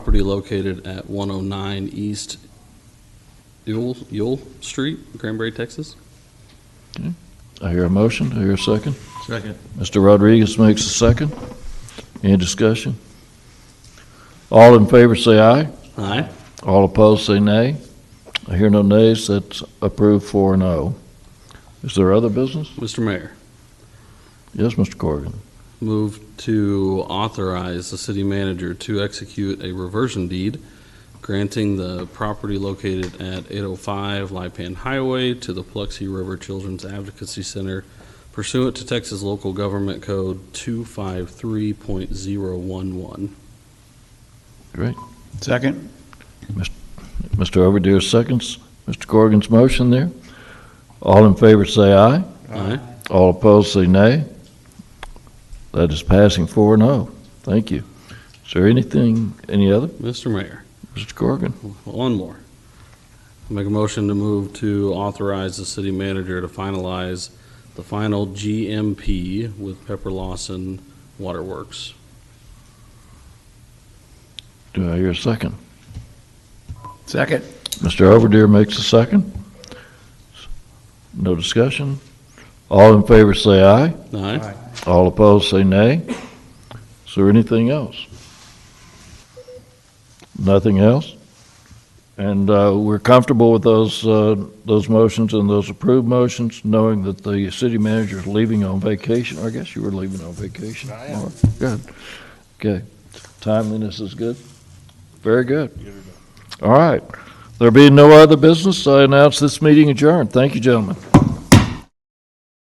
property located at 109 East Yule, Yule Street, Granbury, Texas. I hear a motion, I hear a second. Second. Mr. Rodriguez makes a second. Any discussion? All in favor say aye. Aye. All opposed say nay. I hear no nays, that's approved four and oh. Is there other business? Mr. Mayor, Yes, Mr. Corrigan. move to authorize the city manager to execute a reversion deed granting the property located at 805 Lipan Highway to the Paluxy River Children's Advocacy Center pursuant to Texas Local Government Code 253.011. Second? Mr. Overdeer seconds Mr. Corrigan's motion there. All in favor say aye. Aye. All opposed say nay. That is passing four and oh. Thank you. Is there anything, any other? Mr. Mayor, Mr. Corrigan? One more. Make a motion to move to authorize the city manager to finalize the final GMP with Pepper Lawson Waterworks. Do I hear a second? Second. Mr. Overdeer makes a second. No discussion. All in favor say aye. Aye. All opposed say nay. Is there anything else? Nothing else? And uh, we're comfortable with those, uh, those motions and those approved motions, knowing that the city manager is leaving on vacation. I guess you were leaving on vacation. I am. Good. Okay. Timeliness is good. Very good. All right. There being no other business, I announce this meeting adjourned. Thank you, gentlemen.